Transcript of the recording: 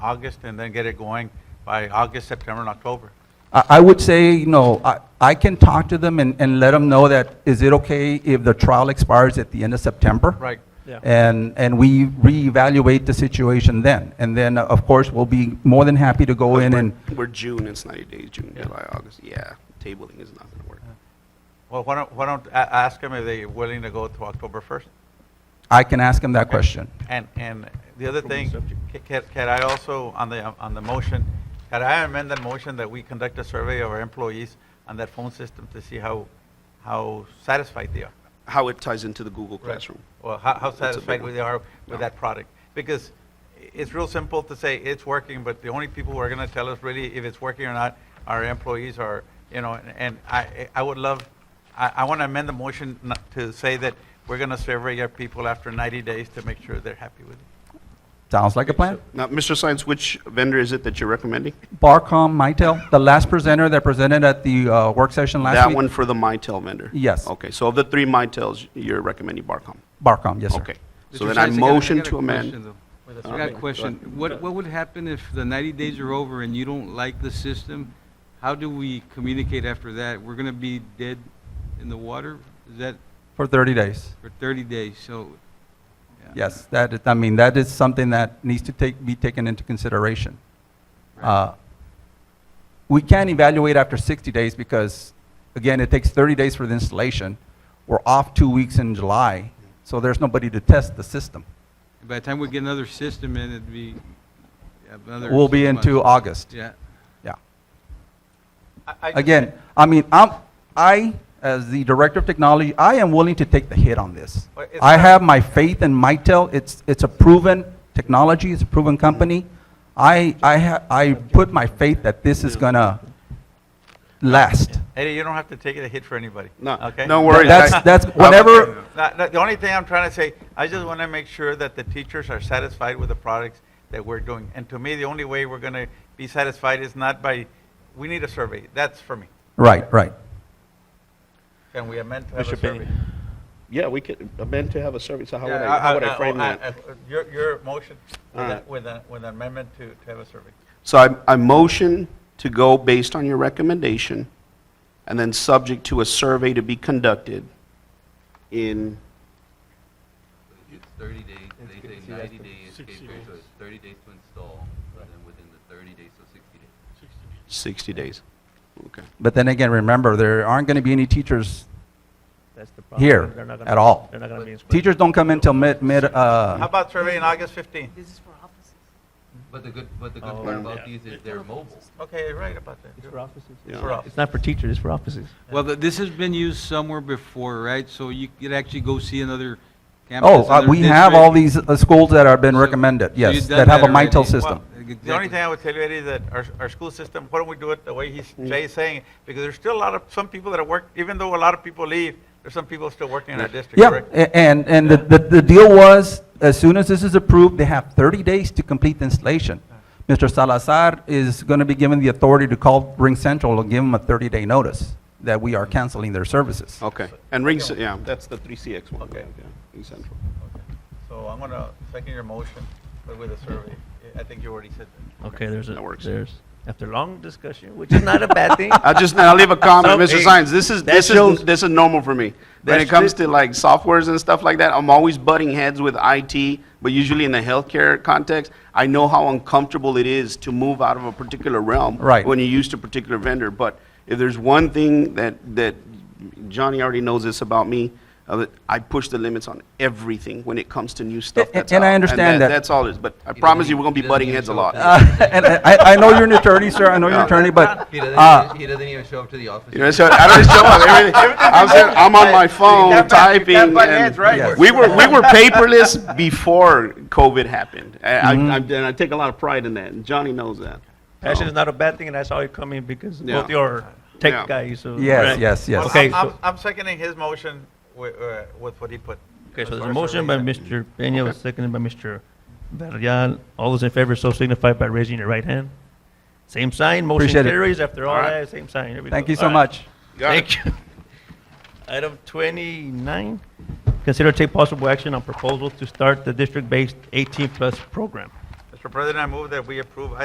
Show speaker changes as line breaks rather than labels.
August and then get it going by August, September, and October.
I I would say, you know, I- I can talk to them and and let them know that, is it okay if the trial expires at the end of September?
Right.
Yeah.
And, and we reevaluate the situation then. And then, uh, of course, we'll be more than happy to go in and,
We're June, it's 90 days, June, July, August, yeah, tabling is not gonna work.
Well, why don't, why don't, a- ask them if they're willing to go to October 1st?
I can ask them that question.
And, and the other thing, ca- ca- can I also, on the, on the motion, can I amend that motion that we conduct a survey of our employees on that phone system to see how, how satisfied they are?
How it ties into the Google Classroom.
Well, how, how
That's a big
satisfied
one.
they are
No.
with that product? Because i- it's real simple to say it's working, but the only people who are gonna tell us really if it's working or not are employees or, you know, and- and I, I would love, I, I wanna amend the motion not to say that we're gonna survey our people after ninety days to make sure they're happy with it.
Sounds like a plan?
Now, Mr. Science, which vendor is it that you're recommending?
Barcom, Mitel, the last presenter that presented at the uh, work session last
That
week?
one for the Mitel vendor?
Yes.
Okay, so of the three Mitels, you're recommending Barcom?
Barcom, yes, sir.
Okay. So then I motion to amend. Oh,
I got a question. What, what would happen if the 90 days are over and you don't like the system? How do we communicate after that? We're going to be dead in the water? Is that
For 30 days.
for 30 days? So, yeah.
Yes, that, is- I mean, that is something that needs to take, be taken into consideration. Uh, We can evaluate after 60 days because, again, it takes 30 days for the installation. We're off two weeks in July, so there's nobody to test the system.
by the time we get another system in, it'd be yeah, another.
We'll be
six
into
months.
August,
Yeah.
yeah.
I- I just-
Again, I mean, I'm, I, as the Director of Technology, I am willing to take the hit on this.
Well, it's
I
not-
have my faith in Mitel, it's, it's a proven technology, it's a proven company. I, I ha, I put my faith that this is gonna last.
Eddie, you don't have to take a hit for anybody.
No,
Okay?
no worries.
That's,
I-
that's,
I-
whenever,
No, no, The only thing I'm trying to say, I just want to make sure that the teachers are satisfied with the products that we're doing. And to me, the only way we're going to be satisfied is not by, we need a survey. That's for me.
right, right.
Can we amend to have a
Mr. Penny.
survey?
Yeah, we could amend to have a survey, so how would
Yeah,
I, how would I frame
I-
that?
I- Your, your motion with
All
a-
right. Uh-huh.
with a- with an amendment to, to have a survey.
So I, I motion to go based on your recommendation, and then subject to a survey to be conducted in,
It's thirty days, they say ninety day escape period, so it's thirty days to install, and then within the thirty days, so sixty days.
60 days. Okay.
But then again, remember, there aren't gonna be any teachers
That's the problem.
here
They're not gonna-
at all.
They're not gonna be in school.
Teachers don't come in till mid, mid,
How
uh,
about survey in August 15th?
This is for offices.
But the good, but the good part
Oh,
about these is they're mobile.
Okay, you're right about that.
It's for offices.
Yeah.
For us.
It's not for teachers, it's for offices.
Well, th- this has been used somewhere before, right? So you could actually go see another campus.
oh, uh,
another
we have all
district.
these uh, schools that have been
So-
recommended,
so
yes,
you've done
that have a
that
Mitel
already.
system.
The only
Exactly.
thing I would tell you, Eddie, that our, our school system, why don't we do it the way he's, Jay is saying? Because there's still a lot of, some people that are work, even though a lot of people leave, there's some people still working in our district,
Yeah,
correct?
a- and, and the, the the deal was, as soon as this is approved, they have 30 days to complete the installation. Mr. Salazar is going to be given the authority to call Ring Central and give them a 30-day notice that we are canceling their services.
Oh.
Okay, and Ring, Ce- yeah, that's the 3CX one. Okay. Ring Central.
So I'm gonna second your motion, but with a survey. I think you already said that.
Okay, there's
That
a,
works.
there's, after long discussion, which is not a bad thing.
I just, I'll leave a comment,
So,
Mr.
hey,
Science, this is,
that
this is,
shows-
this is normal for me. When
that
it comes
should-
to like softwares and stuff like that, I'm always butting heads with IT, but usually in the healthcare context, I know how uncomfortable it is to move out of a particular realm.
Right.
When you're used to a particular vendor, but if there's one thing that, that Johnny already knows this about me, uh, that I push the limits on everything when it comes to new stuff
A-
that's out.
and I understand that.
That's all it is, but I
He
promise
doesn't-
you, we're gonna be
he doesn't
butting
even
heads a
show
lot.
up to the-
Uh, And I, I- I know you're an attorney, sir, I know you're an attorney, but,
He doesn't,
uh,
even- he doesn't even show up to the office.
You know, so I don't show up. Everything, I'm, saying, I'm on my phone
can't buy- you
typing.
can't buy
and-
ads, right?
Yes.
We were we were paperless before COVID happened. I, I, I, and I take a lot of pride in that. And Johnny knows that.
Passion is
So-
not a bad thing, and I saw you come in because
Yeah.
both your
Yeah.
tech guys. so-
Yes,
Right.
yes, yes.
Well,
Okay,
I'm- I'm,
so-
I'm seconding his motion with, uh, with what he put.
Okay,
as
so there's
far
a
as
motion by
survey.
Mr. Peña, was seconded by Mr. Varela. All those in favor, so signify by raising your right hand. Same sign, motion
Appreciate it.
carries. After all
All right.
that, same sign. There we
thank
go.
you so
All right.
much.
Got it.
Thank you. Item twenty-nine, consider take possible action on proposal to start the district-based eighteen-plus program.
Mr. Mr. President, I move that we approve